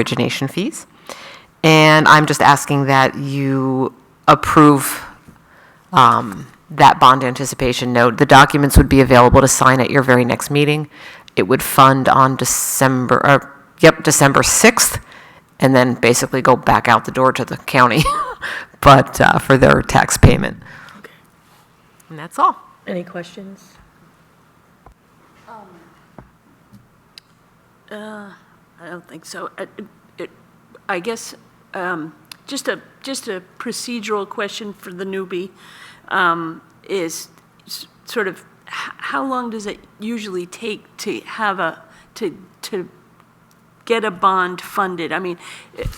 origination fees. And I'm just asking that you approve um, that bond anticipation note. The documents would be available to sign at your very next meeting. It would fund on December, or, yep, December 6th, and then basically go back out the door to the county, but uh, for their tax payment. And that's all. Any questions? I don't think so. It- it- I guess, um, just a, just a procedural question for the newbie, um, is s- sort of, h- how long does it usually take to have a, to, to get a bond funded? I mean,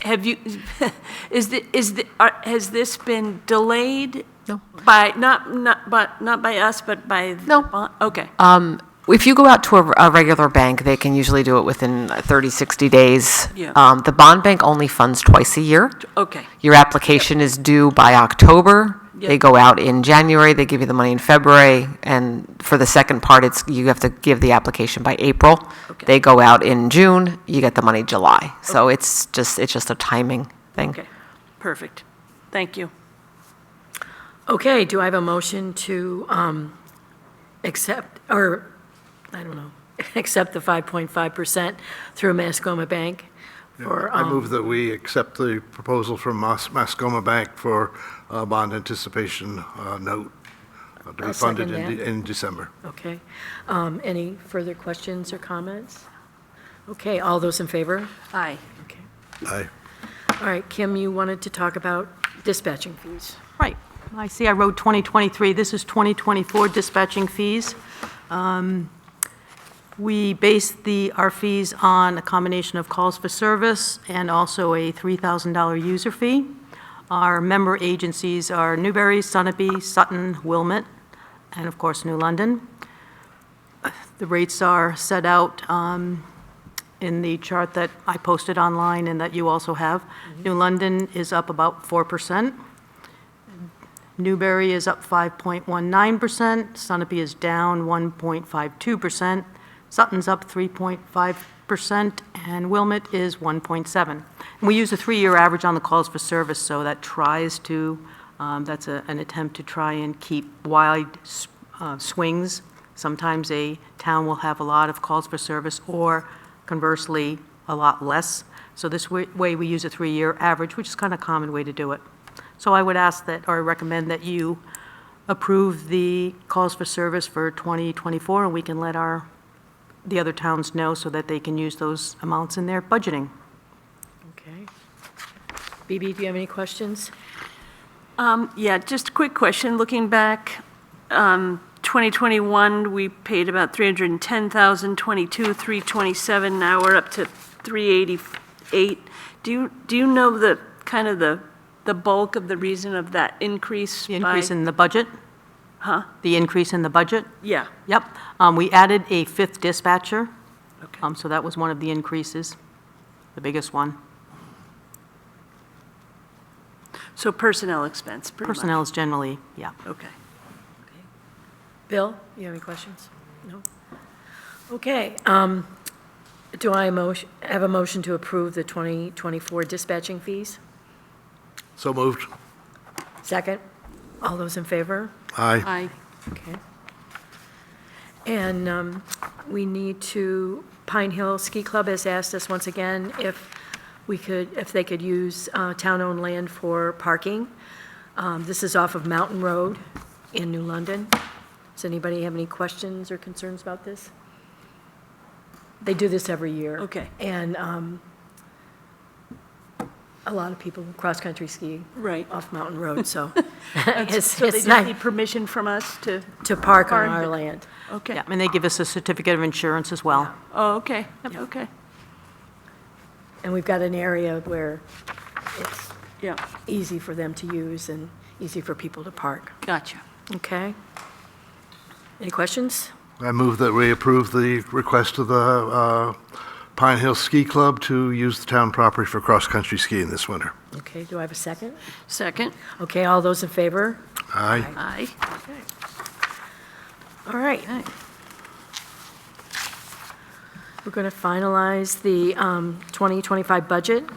have you, is the, is the, are- has this been delayed? No. By, not, not, but, not by us, but by? the No. bond- Okay. Um, If you go out to a, a regular bank, they can usually do it within 30, 60 days. Yeah. Um, The bond bank only funds twice a year. Okay. Your application is due by October. They Yep. go out in January, they give you the money in February, and for the second part, it's, you have to give the application by April. Okay. They go out in June, you get the money July. So it's just, it's just a timing thing. Okay. Perfect. Thank you. Okay, do I have a motion to um, accept, or, I don't know, accept the 5.5% through Mascoma Bank? for, I um, move that we accept the proposal from Mas- Mascoma Bank for a bond anticipation uh, note uh, to be I'll funded second in that. de- in December. Okay. Um, Any further questions or comments? Okay, all those in favor? Aye. Okay. Aye. All right, Kim, you wanted to talk about dispatching fees. Right. I see I wrote 2023. This is 2024 dispatching fees. Um, We base the, our fees on a combination of calls for service and also a $3,000 user fee. Our member agencies are Newbury, Sunapee, Sutton, Wilmot, and of course, New London. The rates are set out um, in the chart that I posted online and that you also have. New London is up about 4%. Newberry is up 5.19%, Sunapee is down 1.52%, Sutton's up 3.5%, and Wilmot is 1.7. And we use a three-year average on the calls for service, so that tries to, um, that's a- an attempt to try and keep wide s- uh, swings. Sometimes a town will have a lot of calls for service, or conversely, a lot less. So this wa- way, we use a three-year average, which is kind of a common way to do it. So I would ask that, or recommend that you approve the calls for service for 2024, and we can let our, the other towns know so that they can use those amounts in their budgeting. Okay. BB, do you have any questions? Um, Yeah, just a quick question. Looking back, um, 2021, we paid about 310,000, 22, 327, now we're up to 388. Do you, do you know the, kind of the, the bulk of the reason of that increase? The increase by- in the budget? Huh? The increase in the budget? Yeah, Yep. Um, We added a fifth dispatcher, Okay. um, so that was one of the increases, the biggest one. so personnel expense, pretty much. Personnel is generally, yeah. Okay. Bill, you have any questions? No? Okay, um, do I motion- have a motion to approve the 2024 dispatching fees? So moved. Second? All those in favor? Aye. Aye. Okay. And um, we need to, Pine Hill Ski Club has asked us once again if we could, if they could use uh, town-owned land for parking. Um, This is off of Mountain Road in New London. Does anybody have any questions or concerns about this? They do this every year. Okay. And um, a lot of people cross-country ski Right. off Mountain Road, so it's So they it's just nice need permission from us to, to park on Park. our land. okay. Yeah, and they give us a certificate of insurance as well. Oh, okay, okay, And we've got an area where it's yeah, easy for them to use and easy for people to park. gotcha. Okay? Any questions? I move that we approve the request of the uh, Pine Hill Ski Club to use the town property for cross-country skiing this winter. Okay, do I have a second? Second? Okay, all those in favor? Aye. Aye. All right. We're going to finalize the um, 2025 budget.